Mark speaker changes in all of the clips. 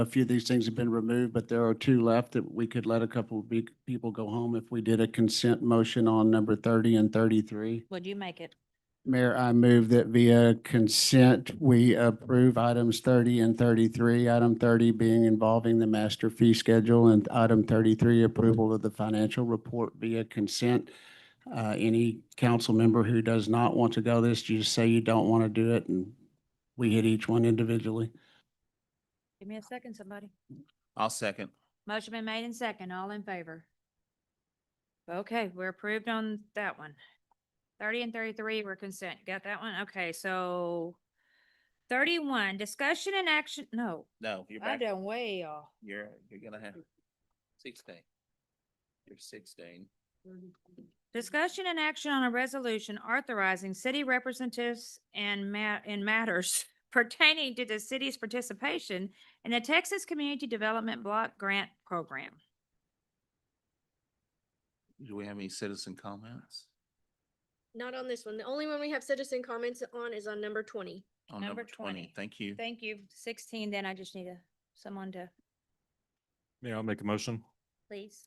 Speaker 1: A few of these things have been removed, but there are two left that we could let a couple of big people go home if we did a consent motion on number thirty and thirty-three.
Speaker 2: Would you make it?
Speaker 1: Mayor, I move that via consent, we approve items thirty and thirty-three. Item thirty being involving the master fee schedule and item thirty-three, approval of the financial report via consent. Uh, any council member who does not want to go this, you just say you don't want to do it and we hit each one individually.
Speaker 2: Give me a second, somebody.
Speaker 3: I'll second.
Speaker 2: Motion been made and second, all in favor. Okay, we're approved on that one. Thirty and thirty-three were consent. Got that one? Okay, so thirty-one, discussion and action, no.
Speaker 3: No, you're
Speaker 2: I
Speaker 3: back.
Speaker 2: done way off.
Speaker 3: You're, you're gonna have sixteen. You're sixteen.
Speaker 2: Discussion and action on a resolution authorizing city representatives and ma- in matters pertaining to the city's participation in the Texas Community Development Block Grant Program.
Speaker 3: Do we have any citizen comments?
Speaker 4: Not on this one. The only one we have citizen comments on is on number twenty.
Speaker 3: On
Speaker 2: Number
Speaker 3: Oh, number
Speaker 2: 20.
Speaker 3: twenty, thank you.
Speaker 2: Thank you. Sixteen, then I just need a, someone to,
Speaker 5: Mayor, I'll make a motion.
Speaker 2: please.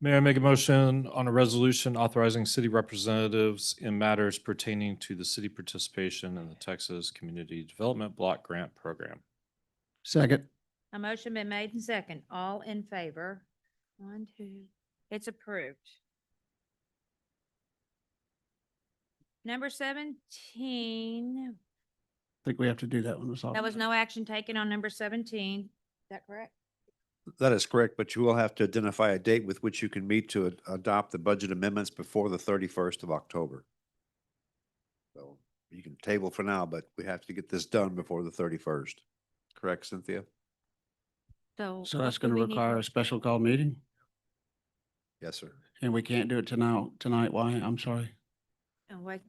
Speaker 5: May I make a motion on a resolution authorizing city representatives in matters pertaining to the city participation in the Texas Community Development Block Grant Program?
Speaker 1: Second.
Speaker 2: A motion been made and second. All in favor? One, two, it's approved. Number seventeen,
Speaker 1: I think we have to do that one. Ms.
Speaker 2: that was
Speaker 1: Hoffman.
Speaker 2: no action taken on number seventeen. Is that correct?
Speaker 6: That is correct, but you will have to identify a date with which you can meet to ad- adopt the budget amendments before the thirty-first of October. So you can table for now, but we have to get this done before the thirty-first. Correct, Cynthia?
Speaker 2: So.
Speaker 1: So
Speaker 2: what
Speaker 1: that's
Speaker 2: do
Speaker 1: going to
Speaker 2: we need
Speaker 1: require
Speaker 2: for-
Speaker 1: a special call meeting
Speaker 6: Yes, sir.
Speaker 1: and we can't do it tonight, tonight. Why? I'm sorry.
Speaker 2: Oh, wait.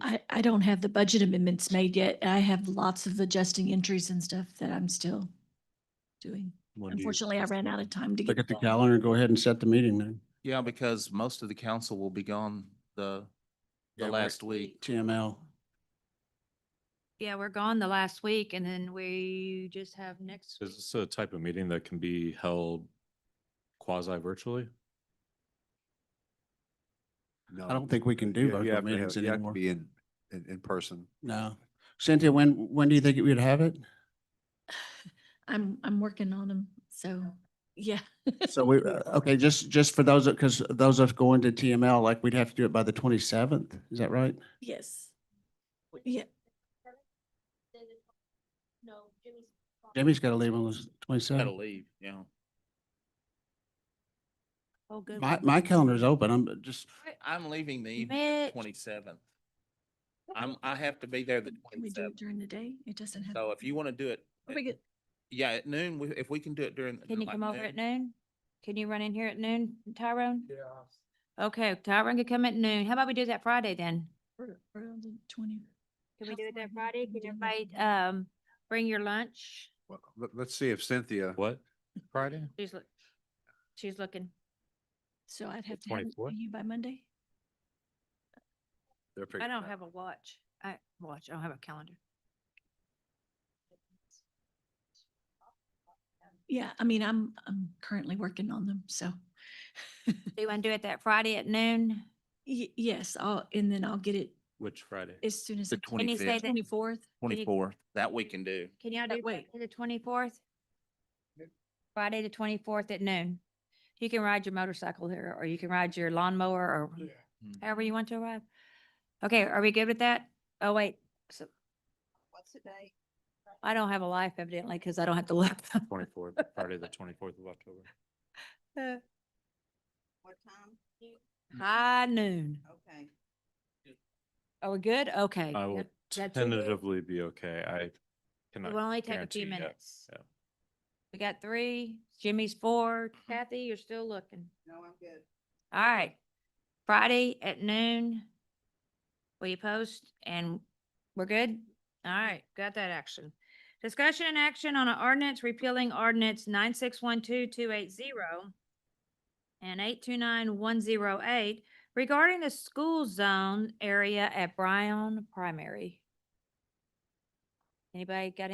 Speaker 7: I, I don't have the budget amendments made yet. I have lots of adjusting entries and stuff that I'm still doing. Unfortunately, I ran out of time to get.
Speaker 1: Look at the
Speaker 7: it all.
Speaker 1: calendar and go ahead and set the meeting then.
Speaker 3: Yeah, because most of the council will be gone the, the last week.
Speaker 1: TML.
Speaker 2: Yeah, we're gone the last week and then we just have next.
Speaker 5: Is
Speaker 2: week.
Speaker 5: this a type of meeting that can be held quasi virtually?
Speaker 6: No.
Speaker 1: I don't think we can do
Speaker 6: You- you
Speaker 1: virtual
Speaker 6: have to
Speaker 1: meetings
Speaker 6: have- you have to
Speaker 1: anymore.
Speaker 6: Be in, in, in person.
Speaker 1: No. Cynthia, when, when do you think we'd have it?
Speaker 7: I'm, I'm working on them, so, yeah.
Speaker 1: So we, uh, okay, just, just for those, because those of us going to TML, like we'd have to do it by the twenty-seventh. Is that right?
Speaker 7: Yes. Yeah,
Speaker 4: No, Jimmy's.
Speaker 1: Jimmy's got to leave on the
Speaker 3: Gotta
Speaker 1: twenty-seventh.
Speaker 3: leave, yeah.
Speaker 2: Oh, good.
Speaker 1: My,
Speaker 2: one.
Speaker 1: my calendar's open. I'm just,
Speaker 3: I'm leaving the
Speaker 2: Mitch.
Speaker 3: twenty-seventh. I'm, I have to be there the
Speaker 7: can we do it
Speaker 3: twenty-seventh.
Speaker 7: during the day? It doesn't have.
Speaker 3: So if you want to do it,
Speaker 7: Are we good?
Speaker 3: yeah, at noon, we- if we can do it during.
Speaker 2: Can you
Speaker 3: like
Speaker 2: come over at
Speaker 3: noon.
Speaker 2: noon? Can you run in here at noon, Tyrone? Yeah. Okay, Tyrone could come at noon. How about we do that Friday then?
Speaker 7: We're- we're on the 20.
Speaker 2: Can we
Speaker 7: How
Speaker 2: do it
Speaker 7: far
Speaker 2: that
Speaker 7: back
Speaker 2: Friday?
Speaker 7: can
Speaker 2: Could
Speaker 7: we do
Speaker 2: everybody,
Speaker 7: that?
Speaker 2: um, bring your lunch?
Speaker 6: Well, let, let's see if Cynthia,
Speaker 5: What? Friday?
Speaker 2: She's look, she's looking.
Speaker 7: So I'd have to have it to
Speaker 5: 24th?
Speaker 7: you by Monday?
Speaker 6: they're
Speaker 2: I
Speaker 6: figuring
Speaker 2: don't
Speaker 6: it out.
Speaker 2: have a watch. I, watch, I don't have a calendar.
Speaker 7: Yeah, I mean, I'm, I'm currently working on them, so.
Speaker 2: Do you want to do it that Friday at noon?
Speaker 7: Y- yes, I'll, and then I'll get it
Speaker 5: Which Friday?
Speaker 7: as soon as.
Speaker 3: The
Speaker 7: I can.
Speaker 2: Can you say
Speaker 3: 25th.
Speaker 2: that,
Speaker 7: Twenty-fourth?
Speaker 2: you-
Speaker 3: Twenty-fourth, that we can do.
Speaker 2: can y'all
Speaker 7: But
Speaker 2: do
Speaker 7: wait.
Speaker 2: Friday the twenty-fourth? Friday the twenty-fourth at noon. You can ride your motorcycle here, or you can ride your lawnmower, or
Speaker 3: Mm.
Speaker 2: however you want to arrive. Okay, are we good with that? Oh, wait. so- I don't have a life evidently because I don't have to look.
Speaker 5: Twenty-fourth, Friday, the twenty-fourth of October.
Speaker 8: What time?
Speaker 5: Mm.
Speaker 2: High noon.
Speaker 8: Okay.
Speaker 2: Are we good? Okay.
Speaker 5: I will
Speaker 2: that- that's it.
Speaker 5: tentatively be okay. I
Speaker 2: It
Speaker 5: cannot.
Speaker 2: will only take a few
Speaker 5: guarantee yet.
Speaker 2: minutes.
Speaker 5: yeah.
Speaker 2: We got three, Jimmy's four,
Speaker 5: Mm-hmm.
Speaker 2: Kathy, you're still looking.
Speaker 8: No, I'm good.
Speaker 2: All right, Friday at noon. Will you post and we're good? All right, got that action. Discussion and action on an ordinance repealing ordinance nine six one two two eight zero and eight two nine one zero eight regarding the school zone area at Bryan Primary. Anybody got